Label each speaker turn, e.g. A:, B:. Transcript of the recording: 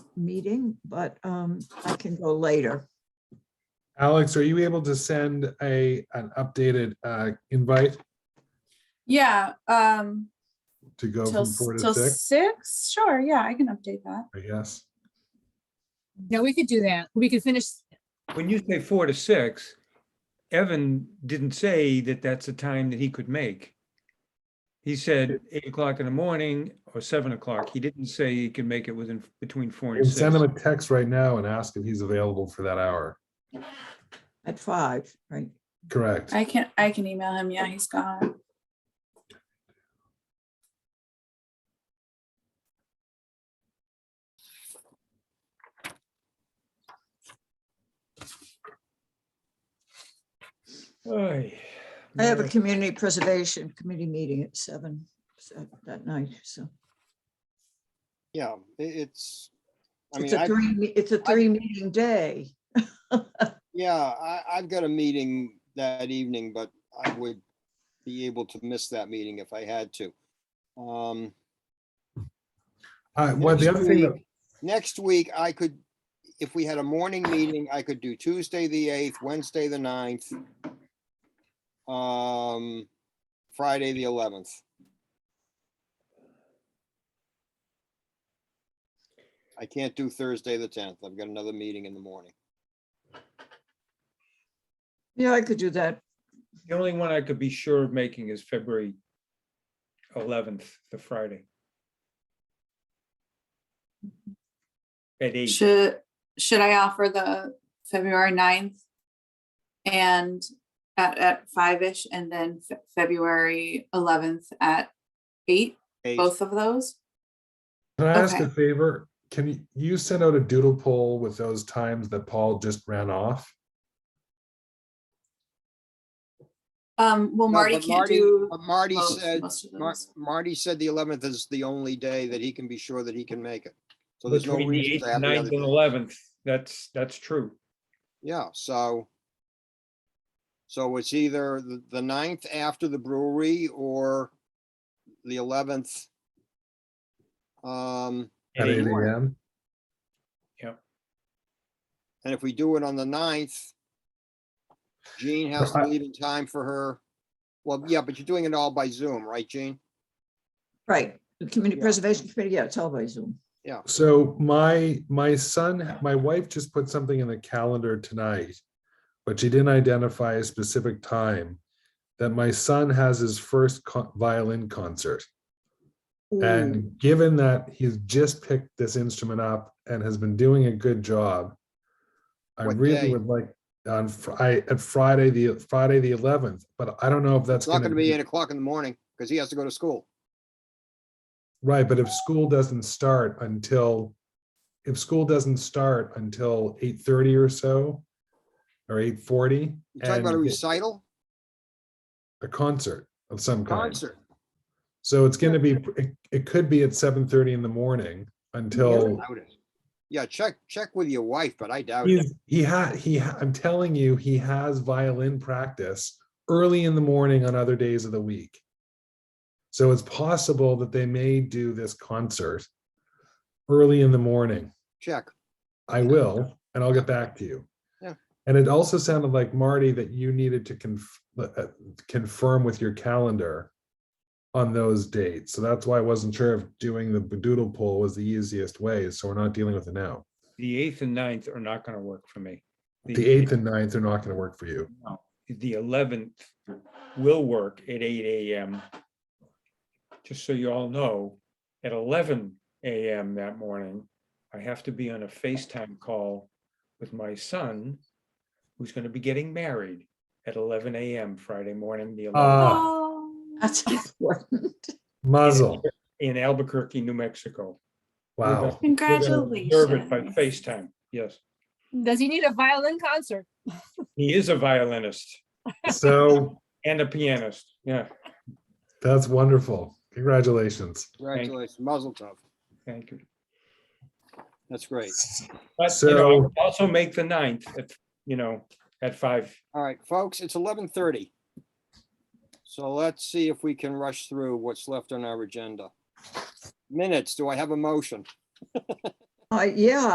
A: meeting, but um, I can go later.
B: Alex, are you able to send a, an updated uh, invite
C: Yeah, um,
B: to go
C: till,
B: from
C: s-
B: four to
C: till
B: six?
C: six, sure, yeah, I can update that.
B: I guess.
D: No, we could do that. We could finish,
E: When you say four to six, Evan didn't say that that's a time that he could make. He said eight o'clock in the morning or seven o'clock. He didn't say he could make it within, between four
B: You
E: and
B: can Send him
E: six.
B: a text right now and ask if he's available for that hour.
A: At five, right?
B: Correct.
C: I can, I can email him, yeah, he's gone.
E: Oy,
A: I have a
E: man.
A: community preservation committee meeting at seven so- that night, so.
F: Yeah, i- it's, I
A: It's
F: mean,
A: a
F: I,
A: three, me- it's a three meeting day.
F: yeah, I, I've got a meeting that evening, but I would be able to miss that meeting if I had to. Um,
B: Uh, Well, the
F: next
B: other thing, that-
F: week- Next week, I could, if we had a morning meeting, I could do Tuesday, the eighth, Wednesday, the ninth. Um, Friday, the eleventh. I can't do Thursday, the tenth. I've got another meeting in the morning.
A: Yeah, I could do that.
E: The only one I could be sure of making is February eleventh, the Friday. At eight,
C: Should, should I offer the February 9th? And at, at five-ish and then Fe- February eleventh at eight,
F: Eight.
C: both of those?
B: can I ask
C: Okay.
B: a favor? Can you- you send out a doodle poll with those times that Paul just ran off?
C: Um, well,
F: No,
C: Marty
F: but
C: can't do,
F: but Marty
C: most-
F: said,
C: most of
F: Mar-
C: those.
F: Marty said the eleventh is the only day that he can be sure that he can make it. So there's no
E: between the
F: reason
E: eighth,
F: to have the
E: ninth
F: other
E: and
F: day.
E: eleventh, that's, that's true.
F: Yeah, so. So it's either the, the ninth after the brewery or the eleventh. Um,
B: At
E: Eight.
B: eight AM?
F: and if we do it on the ninth. Jean has to
B: Right.
F: leave in time for her. Well, yeah, but you're doing it all by Zoom, right, Jean?
A: Right. The community
F: Yeah.
A: preservation committee, yeah, it's all by Zoom.
B: So my, my son, my wife just put something in the calendar tonight, but she didn't identify a specific time that my son has his first co- violin concert.
F: Hmm.
B: And given that he's just picked this instrument up and has been doing a good job, I
F: What
B: really
F: day?
B: would like on Friday, at Friday, the Friday, the eleventh, but I don't know if that's
F: It's not gonna be eight o'clock in the morning because he has to go to school.
B: Right, but if school doesn't start until, if school doesn't start until eight thirty or so, or eight forty,
F: You're talking about a
B: and
F: recital
B: a concert of some kind.
F: concert.
B: So it's gonna be, it, it could be at seven thirty in the morning until,
F: doubt it. Yeah, check, check with your wife, but I doubt it.
B: he's, he had, he, ha- I'm telling you, he has violin practice early in the morning on other days of the week. So it's possible that they may do this concert early in the morning.
F: Check.
B: I will, and I'll get back to you.
F: Yeah.
B: And it also sounded like Marty that you needed to conf- uh, confirm with your calendar on those dates. So that's why I wasn't sure if doing the doodle poll was the easiest way. So we're not dealing with it now.
E: The eighth and ninth are not gonna work for me.
B: The eighth and ninth are not going to work for you.
E: the eleventh will work at eight AM. Just so you all know, at eleven AM that morning, I have to be on a FaceTime call with my son, who's gonna be getting married at eleven AM Friday morning, the eleventh,
B: Ah,
C: oh,
A: That's important.
B: muzzle.
E: in Albuquerque, New Mexico. We're gonna-
B: Wow.
E: we're gonna observe it By
C: congratulations.
E: FaceTime, yes.
D: does he need a violin concert?
E: He is a violinist
B: So
E: and a pianist, yeah,
B: that's wonderful. Congratulations.
F: Congratulations, muzzle tough.
E: thank you.
F: That's great.
E: But, you know, I
B: So-
E: would also make the ninth, at, you know, at five.
F: All right, folks, it's eleven thirty. So let's see if we can rush through what's left on our agenda. Minutes, do I have a motion?
A: Uh, yeah,